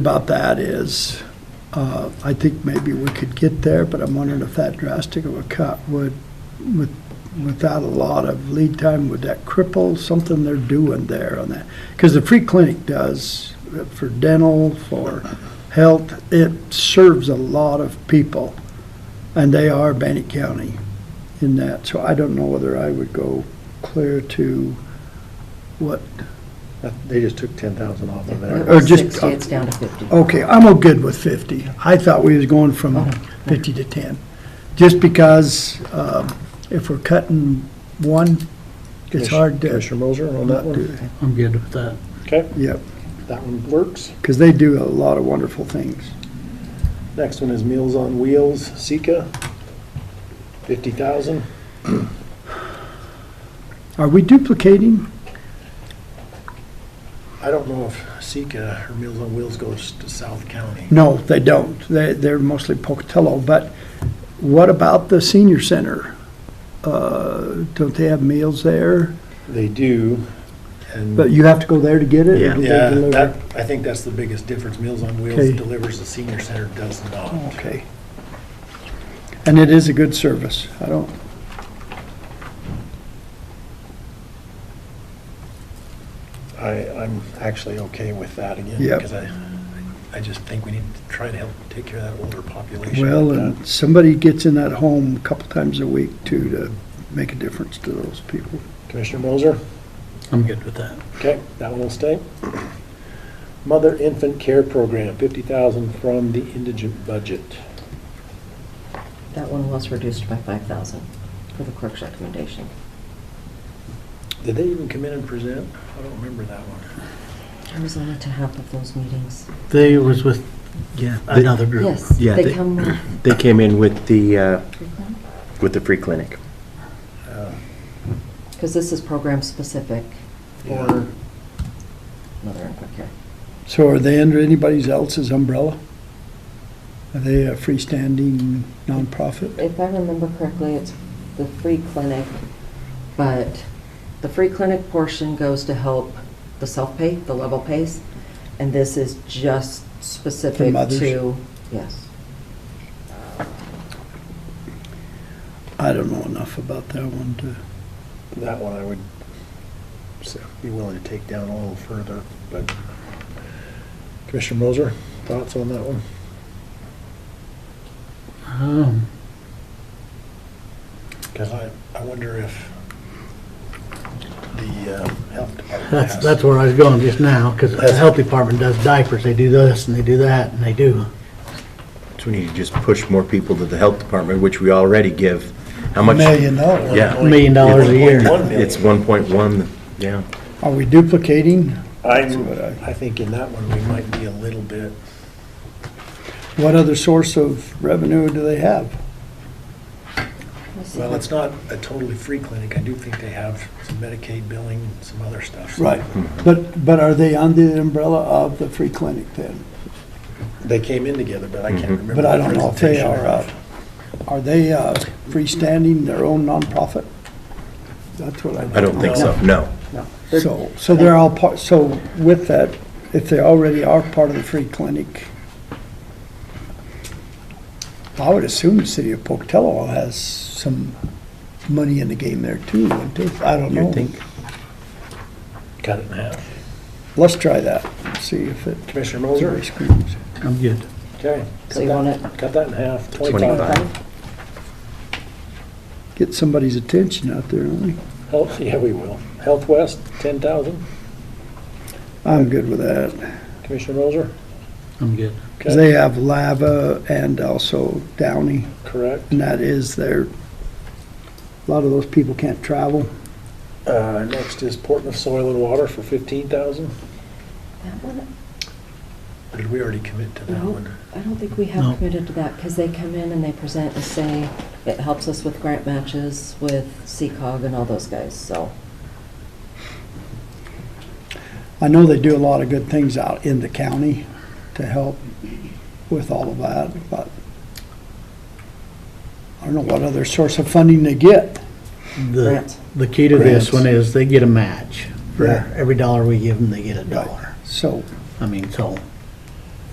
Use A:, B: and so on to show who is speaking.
A: about that is, uh, I think maybe we could get there, but I'm wondering if that drastic of a cut would, with, without a lot of lead time, would that cripple something they're doing there on that? Because the free clinic does, uh, for dental, for health, it serves a lot of people, and they are Bannock County in that, so I don't know whether I would go clear to what,
B: That- They just took ten thousand off of
C: It
B: that.
A: Or
C: was
A: just- Oh.
C: 60, it's down to 50.
A: Okay, I'm all good with 50. I thought we was going
B: Oh.
A: from 50 to 10, just because um, if we're cutting one, it's hard to,
B: Commissioner Moser on that
A: do
B: one?
A: that.
D: I'm good with that.
B: Okay,
A: yep,
B: that one works.
A: because they do a lot of wonderful things.
B: Next one is Meals on Wheels, Sika, fifty thousand.
A: Are we duplicating?
B: I don't know if Sika or Meals on Wheels goes to South County.
A: No, they don't. They, they're mostly Pocatello, but what about the senior center? Uh, Don't they have meals there?
B: They do, and,
A: But you have to go there to get it? or do they
B: yeah,
A: deliver?
B: that, I think that's the biggest difference. Meals on Wheels
A: Okay. Oh,
B: delivers, the senior center does not.
A: Okay. And it is a good service. I don't,
B: I, I'm actually okay with that again,
A: Yep.
B: because I, I just think we need to try to help take care of that older population.
A: Well, and somebody gets in that home a couple times a week too, to make a difference to those people.
B: Commissioner Moser?
D: I'm good with that.
B: Okay, that one will stay. Mother Infant Care Program, fifty thousand from the indigent budget.
C: That one was reduced by 5,000 for the clerk's recommendation.
B: Did they even come in and present? I don't remember that one.
C: I was only to half of those meetings.
D: They was with
E: Yeah, they-
D: another group.
C: Yes,
E: Yeah,
C: they
E: they-
C: come with
E: They came in with the, uh, with the free clinic.
C: Because this is program-specific
B: Yeah.
C: for mother and quick care.
A: So are they under anybody else's umbrella? Are they a freestanding nonprofit?
C: If I remember correctly, it's the free clinic, but the free clinic portion goes to help the self-pay, the level pays, and this is just specific
A: mothers?
C: to, yes.
A: I don't know enough about that one to,
B: That one I would s- be willing to take down a little further, but. Commissioner Moser, thoughts on that one?
D: Um,
B: Because I, I wonder if the uh, health department
D: that's,
B: has.
D: that's where I was going just now, because the health department does diapers, they do this and they do that, and they do.
E: So we need to just push more people to the health department, which we already give. How
A: a
E: much?
A: million dollars.
E: Yeah.
D: Million dollars a year.
B: One million.
E: It's 1.1, yeah.
A: Are we duplicating?
B: I'm,
A: what I-
B: I think in that one, we might be a little bit,
A: What other source of revenue do they have?
B: well, it's not a totally free clinic. I do think they have some Medicaid billing, some other stuff. so-
A: Right, but, but are they under the umbrella of the free clinic then?
B: They came in together, but I can't remember.
A: But I
B: the
A: don't know if they are,
B: presentation.
A: uh, are they uh, freestanding, their own nonprofit? That's what I.
E: I don't think so, no.
A: So, so they're all part, so with that, if they already are part of the free clinic, I would assume the city of Pocatello has some money in the game there too, wouldn't they? I don't know.
E: You'd think.
B: Cut it in half.
A: Let's try that, see if it
B: Commissioner
A: really
B: Moser?
A: screams.
D: I'm good.
B: Okay.
C: So you want it-
B: Cut that in half,
E: 25.
B: twenty-five.
A: Get somebody's attention out there, don't we?
B: Health, yeah, we will. Health West, ten thousand.
A: I'm good with that,
B: Commissioner Moser?
D: I'm good.
A: because
B: Okay,
A: they have Lava and also Downey.
B: correct.
A: And that is their, a lot of those people can't travel.
B: Uh, next is Portland Soil and Water for fifteen thousand.
C: That one,
B: Did we already commit to that
C: No.
B: one?
C: I don't think we
D: No.
C: have committed to that, because they come in and they present and say, it helps us with grant matches, with CCOG and all those guys, so.
A: I know they do a lot of good things out in the county to help with all of that, but I don't know what other source of funding they get.
D: The,
C: Grants.
D: the key to this
A: Grants.
D: one is they get a match. For
A: Yeah.
D: every dollar we give them, they get a
A: Right.
D: dollar.
A: So
D: I mean, so